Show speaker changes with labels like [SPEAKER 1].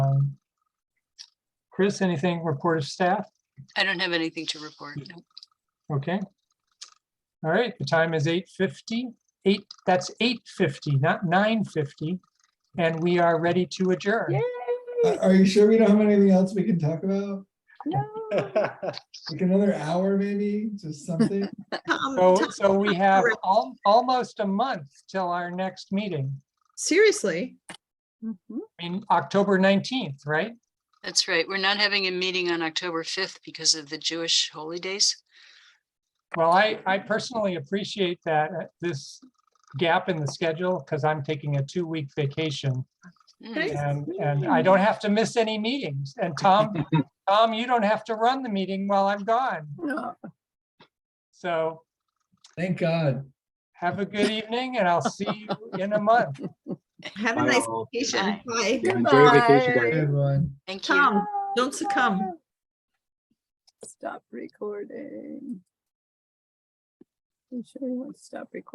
[SPEAKER 1] Um, Chris, anything report of staff?
[SPEAKER 2] I don't have anything to report. no.
[SPEAKER 1] Okay. All right, the time is 8:50, eight, that's 8:50, not 9:50. And we are ready to adjourn.
[SPEAKER 3] Are Uh, are you sure we don't have anything else we can talk about?
[SPEAKER 4] All
[SPEAKER 3] Like another hour maybe, just something?
[SPEAKER 5] Tom,
[SPEAKER 1] So,
[SPEAKER 5] Tom,
[SPEAKER 1] so we have
[SPEAKER 5] correct.
[SPEAKER 1] al- almost a month till our next meeting,
[SPEAKER 5] Seriously,
[SPEAKER 1] I mean, October 19th, right?
[SPEAKER 2] That's right. We're not having a meeting on October 5th because of the Jewish holy days.
[SPEAKER 1] Well, I, I personally appreciate that, uh, this gap in the schedule, because I'm taking a two-week vacation.
[SPEAKER 2] Mm,
[SPEAKER 1] And, and I don't have to miss any meetings. And Tom, Tom, you don't have to run the meeting while I'm gone. So
[SPEAKER 3] Thank God.
[SPEAKER 1] have a good evening and I'll see you in a month.
[SPEAKER 5] have a
[SPEAKER 4] Bye,
[SPEAKER 5] nice
[SPEAKER 4] all.
[SPEAKER 5] vacation.
[SPEAKER 2] Bye.
[SPEAKER 5] Bye.
[SPEAKER 4] Yeah, enjoy your vacation,
[SPEAKER 6] Goodbye.
[SPEAKER 4] guys.
[SPEAKER 3] Good one.
[SPEAKER 2] Thank you.
[SPEAKER 5] Tom, don't succumb.
[SPEAKER 6] Stop recording. You sure you want to stop recording?